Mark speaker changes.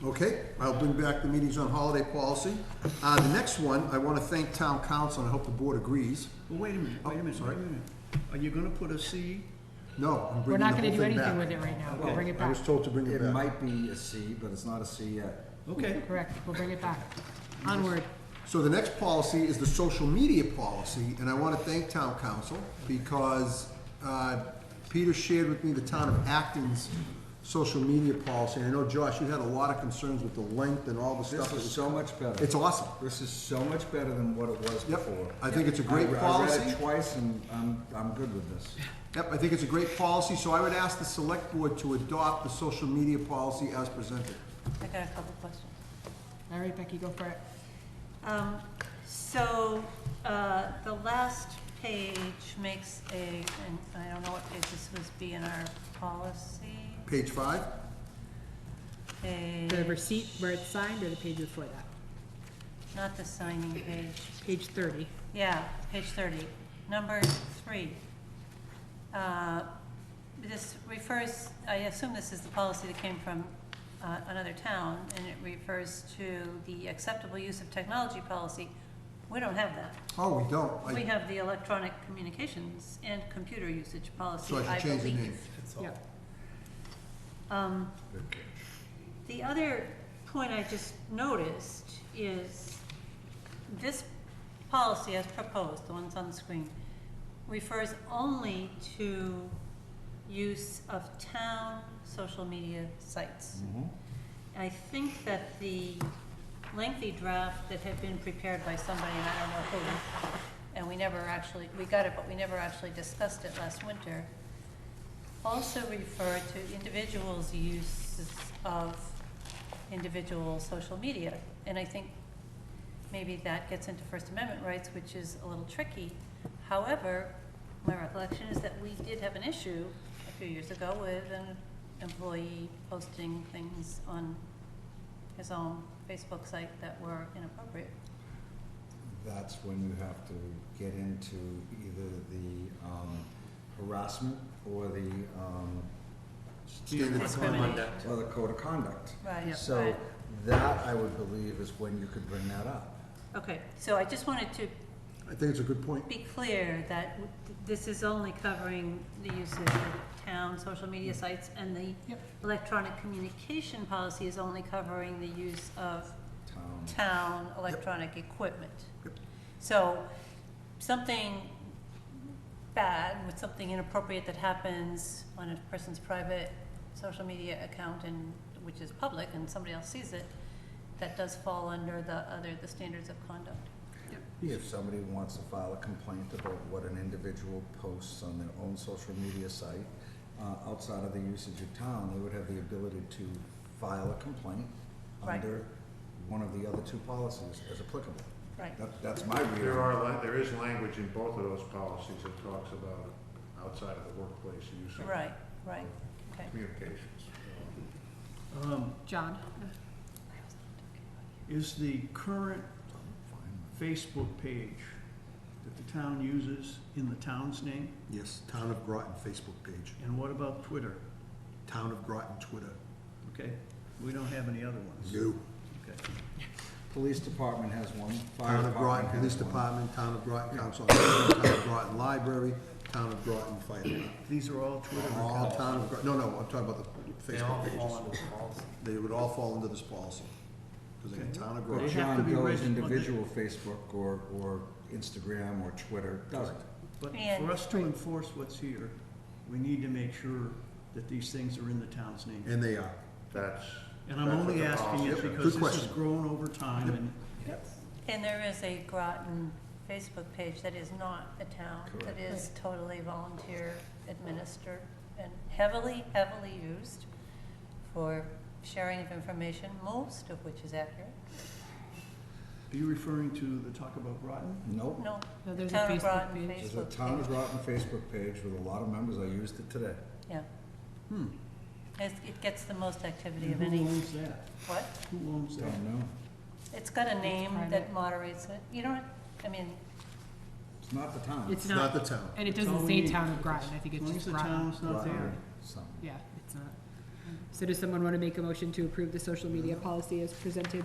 Speaker 1: Okay, I'll bring back the meetings on holiday policy. Uh, the next one, I want to thank town council, and I hope the board agrees.
Speaker 2: Well, wait a minute, wait a minute, wait a minute. Are you gonna put a C?
Speaker 1: No, I'm bringing the
Speaker 3: We're not
Speaker 1: whole
Speaker 3: gonna do
Speaker 1: thing
Speaker 3: anything
Speaker 1: back.
Speaker 3: with it right now,
Speaker 2: Okay.
Speaker 3: we'll bring it
Speaker 1: I
Speaker 3: back,
Speaker 1: was told to bring it
Speaker 4: It
Speaker 1: back.
Speaker 4: might be a C, but it's not a C yet.
Speaker 2: Okay,
Speaker 3: correct, we'll bring it back. Onward,
Speaker 1: So the next policy is the social media policy, and I want to thank town council because uh, Peter shared with me the town of Acton's social media policy. And I know, Josh, you had a lot of concerns with the length and all the stuff.
Speaker 4: This
Speaker 1: that
Speaker 4: is
Speaker 1: was-
Speaker 4: so much better.
Speaker 1: It's awesome.
Speaker 4: This is so much better than what it was
Speaker 1: Yep,
Speaker 4: before.
Speaker 1: I think it's a great
Speaker 4: I re- I read
Speaker 1: policy.
Speaker 4: it twice and I'm, I'm good with this.
Speaker 1: Yep, I think it's a great policy, so I would ask the select board to adopt the social media policy as presented.
Speaker 5: I got a couple questions.
Speaker 3: all right, Becky, go for it.
Speaker 5: Um, So, uh, the last page makes a, and I don't know what page this was, be in our policy,
Speaker 1: Page five?
Speaker 5: page,
Speaker 6: The receipt where it's signed or the page before that?
Speaker 5: not the signing page.
Speaker 6: Page thirty.
Speaker 5: Yeah, page thirty, number three. Uh, This refers, I assume this is the policy that came from uh, another town, and it refers to the acceptable use of technology policy. We don't have that.
Speaker 1: Oh, we don't. I-
Speaker 5: We have the electronic communications and computer usage policy,
Speaker 1: So I
Speaker 5: I
Speaker 1: should change the name.
Speaker 5: believe.
Speaker 6: Yep.
Speaker 5: Um, The other point I just noticed is this policy as proposed, the ones on the screen, refers only to use of town social media sites.
Speaker 1: Mm-hmm.
Speaker 5: I think that the lengthy draft that had been prepared by somebody, and I don't know who, and we never actually, we got it, but we never actually discussed it last winter, also refer to individuals' uses of individual social media. And I think maybe that gets into First Amendment rights, which is a little tricky. However, my recollection is that we did have an issue a few years ago with an employee posting things on his own Facebook site that were inappropriate.
Speaker 4: That's when you have to get into either the um, harassment or the, um,
Speaker 1: Standard
Speaker 5: Discriminate.
Speaker 4: or the code of conduct.
Speaker 5: Right, right.
Speaker 4: So that, I would believe, is when you could bring that up.
Speaker 5: Okay, so I just wanted to
Speaker 1: I think it's a good point.
Speaker 5: be clear that w- th- this is only covering the use of the town social media sites, and the
Speaker 3: Yep.
Speaker 5: electronic communication policy is only covering the use of
Speaker 4: Town.
Speaker 5: town electronic equipment.
Speaker 1: Yep.
Speaker 5: So, something bad with something inappropriate that happens on a person's private social media account and, which is public, and somebody else sees it, that does fall under the other, the standards of conduct.
Speaker 4: If somebody wants to file a complaint about what an individual posts on their own social media site, uh, outside of the usage of town, they would have the ability to file a complaint
Speaker 5: Right.
Speaker 4: under one of the other two policies as applicable.
Speaker 5: Right.
Speaker 4: That, that's my reading.
Speaker 7: There are, lan- there is language in both of those policies that talks about outside of the workplace use of
Speaker 5: Right, right, okay.
Speaker 7: communications.
Speaker 2: um,
Speaker 3: John?
Speaker 2: is the current Facebook page that the town uses in the town's name?
Speaker 1: Yes, Town of Groton Facebook page,
Speaker 2: And what about Twitter?
Speaker 1: Town of Groton Twitter.
Speaker 2: Okay, we don't have any other ones.
Speaker 1: You,
Speaker 2: Okay.
Speaker 4: Police department has one, fire
Speaker 1: Town of Groton
Speaker 4: department
Speaker 1: Police
Speaker 4: has one.
Speaker 1: Department, Town of Groton Council, on Aging, Town of Groton Library, Town of Groton Fire Department.
Speaker 2: These are all Twitter
Speaker 1: All
Speaker 2: accounts.
Speaker 1: Town of Groton, no, no, I'm talking about the Facebook pages. They would all fall under this policy, because they're
Speaker 2: Okay.
Speaker 1: Town of
Speaker 2: They
Speaker 4: But
Speaker 1: Groton.
Speaker 2: have to
Speaker 4: John
Speaker 2: be
Speaker 4: Doe's
Speaker 2: registered.
Speaker 4: individual Facebook or, or Instagram or Twitter doesn't.
Speaker 2: But
Speaker 5: And-
Speaker 2: for us to enforce what's here, we need to make sure that these things are in the town's name.
Speaker 1: And they are.
Speaker 7: That's.
Speaker 2: And I'm
Speaker 7: that's what
Speaker 2: only
Speaker 7: the
Speaker 2: asking
Speaker 7: policy
Speaker 2: it
Speaker 7: is.
Speaker 2: because
Speaker 1: good
Speaker 2: this has
Speaker 1: question.
Speaker 2: grown over time and
Speaker 5: And there is a Groton Facebook page that is not the town, that is totally volunteer administered and heavily, heavily used for sharing of information, most of which is accurate.
Speaker 2: Are you referring to the Talk About Groton?
Speaker 4: Nope.
Speaker 5: No,
Speaker 3: No,
Speaker 5: the
Speaker 3: there's a
Speaker 5: town of
Speaker 3: Facebook
Speaker 5: Groton
Speaker 3: page.
Speaker 4: There's a
Speaker 5: Facebook
Speaker 4: town of
Speaker 5: page,
Speaker 4: Groton Facebook page with a lot of members, I used it today.
Speaker 5: yeah.
Speaker 2: Hmm.
Speaker 5: It's- It gets the most activity
Speaker 2: And
Speaker 5: of
Speaker 2: who
Speaker 5: any,
Speaker 2: owns that?
Speaker 5: what?
Speaker 2: Who owns that?
Speaker 4: Don't know.
Speaker 5: It's got a name that
Speaker 3: private.
Speaker 5: moderates it, you don't, I mean,
Speaker 4: It's not the town.
Speaker 1: It's
Speaker 3: It's
Speaker 1: not
Speaker 3: not,
Speaker 1: the town.
Speaker 3: and it
Speaker 2: That's all
Speaker 3: doesn't
Speaker 2: we
Speaker 3: say
Speaker 2: need.
Speaker 3: Town of Groton, I think
Speaker 2: As
Speaker 3: it's
Speaker 2: long as
Speaker 3: just
Speaker 2: the
Speaker 3: Groton.
Speaker 2: town's not there.
Speaker 4: Something.
Speaker 3: Yeah, it's not. So does someone want to make a motion to approve the social media policy as presented